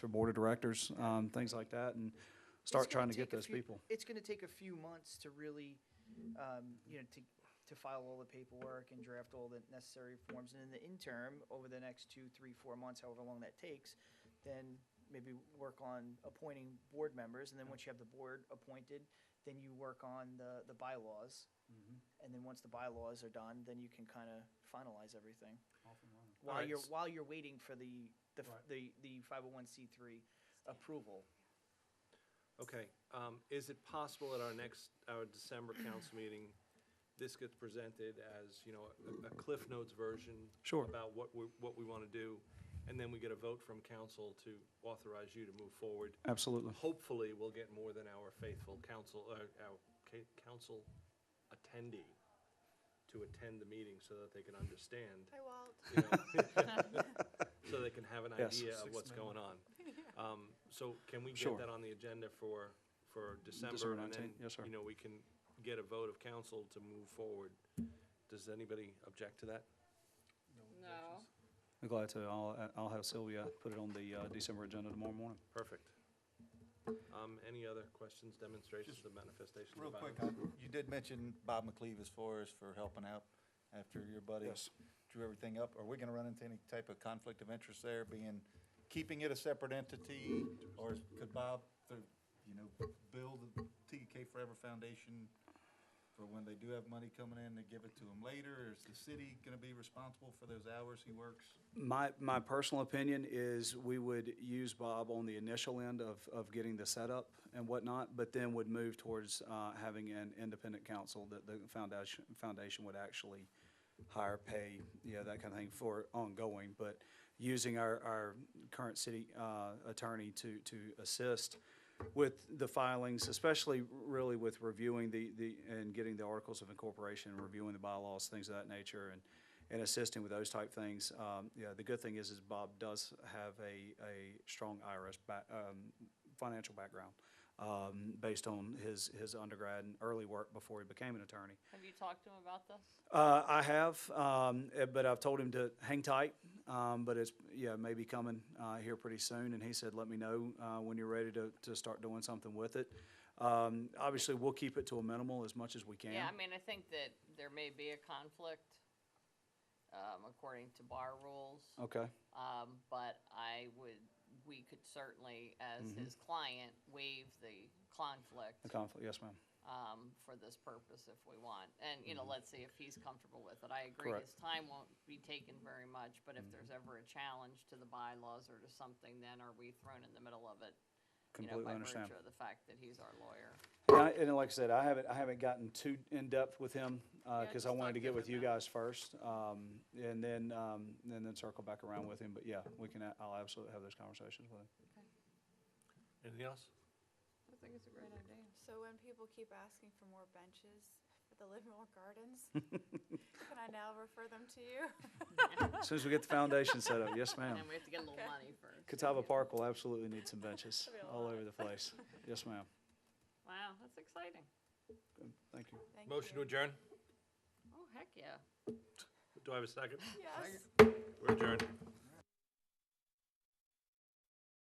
for board of directors, um, things like that, and start It's gonna trying to get take a those few- people. It's gonna take a few months to really, um, you know, to, to file all the paperwork and draft all the necessary forms. And in the interim, over the next two, three, four months, however long that takes, then maybe work on appointing board members. And then once you have the board appointed, then you work on the, the bylaws. Mm-hmm. And then once the bylaws are done, then you can kind of finalize everything. While Alright, you're, s- while you're waiting for the, the, f- Right. the, the 501c3 approval. Okay, um, is it possible at our next, our December council meeting, this gets presented as, you know, a- a Cliff Notes version? Sure. About what we, what we want to do, and then we get a vote from council to authorize you to move forward. Absolutely. Hopefully, we'll get more than our faithful council, uh, our ca- council attendee to attend the meeting so that they can understand. Hi, Walt. you know, So they can have an Yes. idea of what's going on. Um, So can we Sure. get that on the agenda for, for December? December and then 19th, yes, sir. You know, we can get a vote of council to move forward. Does anybody object to that? No. I'm glad to, I'll, I'll have Sylvia put it on the, uh, December agenda tomorrow morning. Perfect. Um, Any other questions, demonstrations of manifestations Real of quick, violence? I- you did mention Bob McLeave as far as for helping out after your buddy Yes. drew everything up. Are we gonna run into any type of conflict of interest there, being, keeping it a separate entity? Or could Bob, through, you know, build the TK Forever Foundation for when they do have money coming in to give it to him later? Or is the city gonna be responsible for those hours he works? My, my personal opinion is we would use Bob on the initial end of, of getting the setup and whatnot, but then would move towards, uh, having an independent council that the foundation, foundation would actually hire, pay, you know, that kind of thing for ongoing, but using our, our current city, uh, attorney to, to assist with the filings, especially really with reviewing the, the, and getting the articles of incorporation, reviewing the bylaws, things of that nature, and, and assisting with those type things. Um, yeah, the good thing is, is Bob does have a, a strong IRS back, um, financial background, um, based on his, his undergrad and early work before he became an attorney. Have you talked to him about this? Uh, I have, um, eh, but I've told him to hang tight. Um, but it's yeah, maybe coming uh, here pretty soon. And he said, "Let me know uh, when you're ready to, to start doing something with it." Um, obviously, we'll keep it to a minimal as much as we can. Yeah, I mean, I think that there may be a conflict, um, according to bar rules. okay. Um, but I would, we could certainly, as Mm-hmm. his client, waive the conflict, The conflict. Yes, ma'am. um, for this purpose if we want. And, you know, let's see if he's comfortable with it. I agree, Mm-hmm. Correct. Mm-hmm. his time won't be taken very much, but if there's ever a challenge to the bylaws or to something, then are we thrown in the middle of it? you know, Completely by understand. virtue of the fact that he's our lawyer. And, I, and like I said, I haven't I haven't gotten too in depth with him Yeah, because I just wanted to talk to get him with you guys about it. first, um, and then um, and then circle back around with him. But yeah, we can. a- I'll absolutely have those conversations with him. Anything else? I think it's a great idea. So when people keep asking for more benches at the Livermore Gardens, can I now refer them to you? As soon as we get the foundation set up, yes, ma'am. And then we have to get a little money first. Catawba Park will absolutely need some benches That'd be a all lot. over the place. Yes, ma'am. Wow, that's exciting. Thank you. Thank Motion to you. adjourn? Oh, heck yeah. Do I have a second? Yes. We're adjourned.